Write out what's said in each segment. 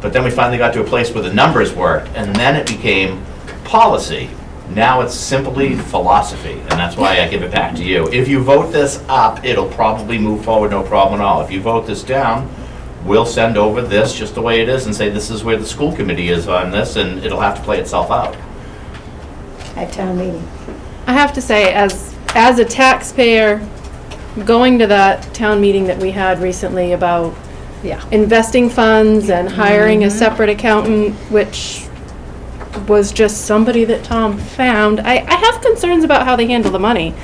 But then we finally got to a place where the numbers worked, and then it became policy. Now it's simply philosophy, and that's why I give it back to you. If you vote this up, it'll probably move forward, no problem at all. If you vote this down, we'll send over this just the way it is and say, this is where the school committee is on this, and it'll have to play itself out. at town meeting. I have to say, as, as a taxpayer, going to that town meeting that we had recently about Yeah. investing funds and hiring a separate accountant, which was just somebody that Tom found, I, I have concerns about how they handle the money.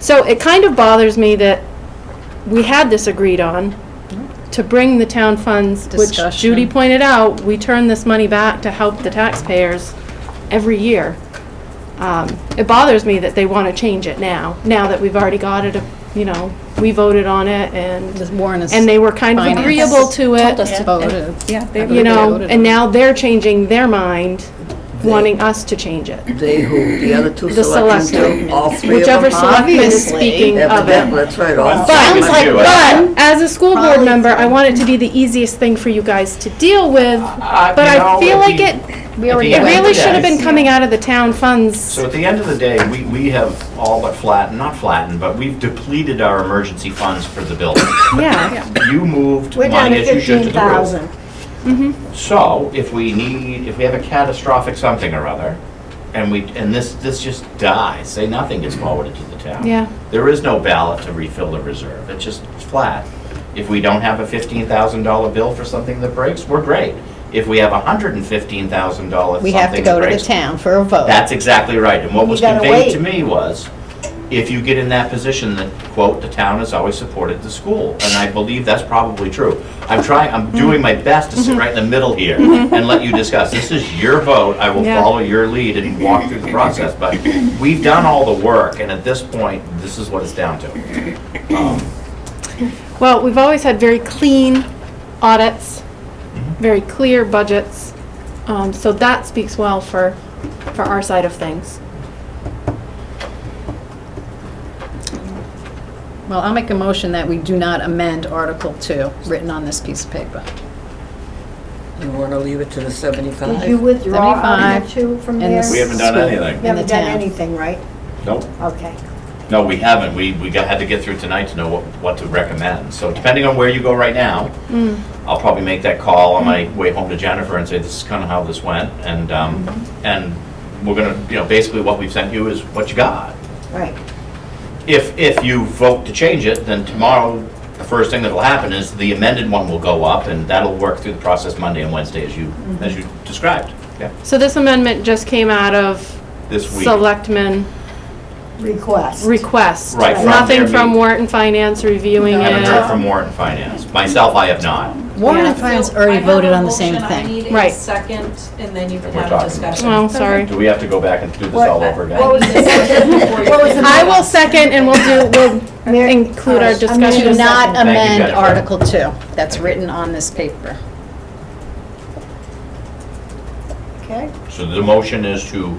So it kind of bothers me that we had this agreed on to bring the town funds, which Judy Discussion. pointed out, we turn this money back to help the taxpayers every year. Um, It bothers me that they want to change it now, now that we've already got it, you know, we voted on it and. Just Warren is. And they were kind of finance. agreeable to Told us it, to vote it. Yeah, they- I believe you know, voted and it. now they're changing their mind, wanting us to change it. They who, the other two The selectmen selectmen. do, all three of them. Whichever huh? selectman is Obviously. speaking of Evidently, it. that's right, all But- three of Sounds them like- do it. But as a school board Probably member, I three. want it to be the easiest thing for you guys to deal with, but I feel like it, We Uh, At already the it end of voted. the really should have day- been coming out of the town funds. So at the end of the day, we, we have all but flattened, not flattened, but we've depleted our emergency funds for the building. Yeah, You moved We're down money to as you should to fifteen the road. thousand. So if we need, if we have a catastrophic something or other, and we, and this, this just dies, say nothing gets forwarded to the town. Yeah. There is no ballot to refill the reserve, it's just flat. If we don't have a fifteen thousand dollar bill for something that breaks, we're great. If we have a hundred and fifteen thousand dollar We something have to that go to the breaks, town for a vote. That's exactly right, and what You was gotta conveyed to wait. me was, if you get in that position, that, quote, "the town has always supported the school," and I believe that's probably true. I'm trying, I'm Mm-hmm. doing my best to sit right in the middle here and let you discuss. This is your vote, I will Yeah. follow your lead and walk through the process, but we've done all the work, and at this point, this is what it's down to. Um, well, we've always had very clean audits, very clear budgets, um, so that speaks well for, for our side of things. Well, I'll make a motion that we do not amend Article 2, written on this piece of paper. You wanna leave it to the seventy-five? Did you withdraw Article Seventy-five two from and there? the We haven't done anything. You haven't in the done town. anything, right? Nope. Okay. No, we haven't. We, we got- had to get through tonight to know what, what to recommend. So depending on where you go right now, I'll probably make that call on my way home to Jennifer and say, this is kind of how this went. And, um, and we're gonna, you know, basically what we've sent you is what you got. Right. If, if you vote to change it, then tomorrow, the first thing that'll happen is the amended one will go up and that'll work through the process Monday and Wednesday as you, as you described. Yeah, So this amendment just came out of this week. selectmen Request. request. Right, from Nothing their from meeting. Warren Finance reviewing I Haven't heard it. from Warren Finance. Myself, I have not. Warren and Yeah. Finance So I already have voted a on the same motion. I thing. need a Right. second, and then you can We're have talking. a discussion. Oh, sorry. Do we have to go back and do this What- all over again? What was the second before you- What was the I will second and we'll do, we'll Mary- include our I'm gonna discussion. Do not Thank you, amend Jennifer. Article 2, that's written on this paper. Okay. So the motion is to,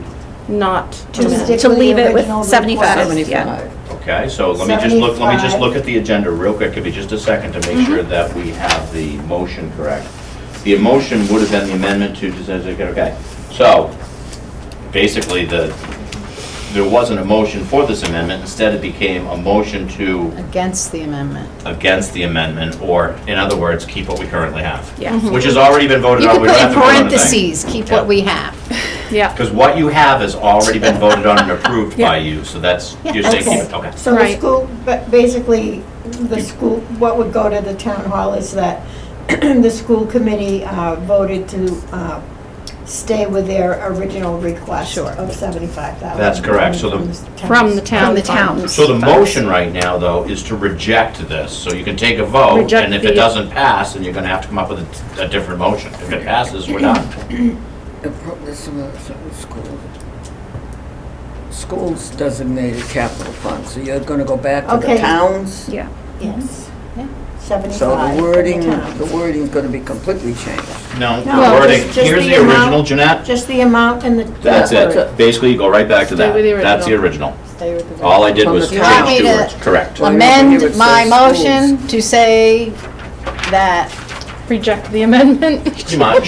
Not to To amend. stick To with leave the it with original 75, request. yeah. okay, so let me just look, let me just 75. look at the agenda real quick, give me just a second to Mm-hmm. make sure that we have the motion correct. The motion would have been the amendment to, okay, so basically the, there wasn't a motion for this amendment, instead it became a motion to Against the amendment. against the amendment, or in other words, keep what we currently have. Yeah. Mhm. Which has already been voted You on, could we put don't have in to vote on anything. parentheses, keep Yeah. what we have. Yeah, Because what you have has already been voted on and approved by you, so that's, you're saying, keep it, okay. So the Right. school, but basically, the school, what would go to the town hall is that the school committee uh, voted to uh, stay with their original request Sure. of seventy-five thousand. That's correct. So the- from the town. From the fund. towns. So the motion right now, though, is to reject this, so you can take a vote, Reject and if it the- doesn't pass, then you're gonna have to come up with a, a different motion. If it passes, we're done. School. Schools designated capital fund, so you're gonna go back to the Okay. towns? Yeah. Yes. Yeah. Seventy-five. So the for wording, towns. the wording's gonna be completely changed. No, No, the wording, just- just here's the the original, amount. Jeanette. Just the amount and the. That's word. it. Basically, you go right back to Stay that. with the That's the original. Stay with the. All I did was From change the top. two Copy to- words, correct. Well, you know, you Amend would my say motion to say that reject the amendment. Pretty much.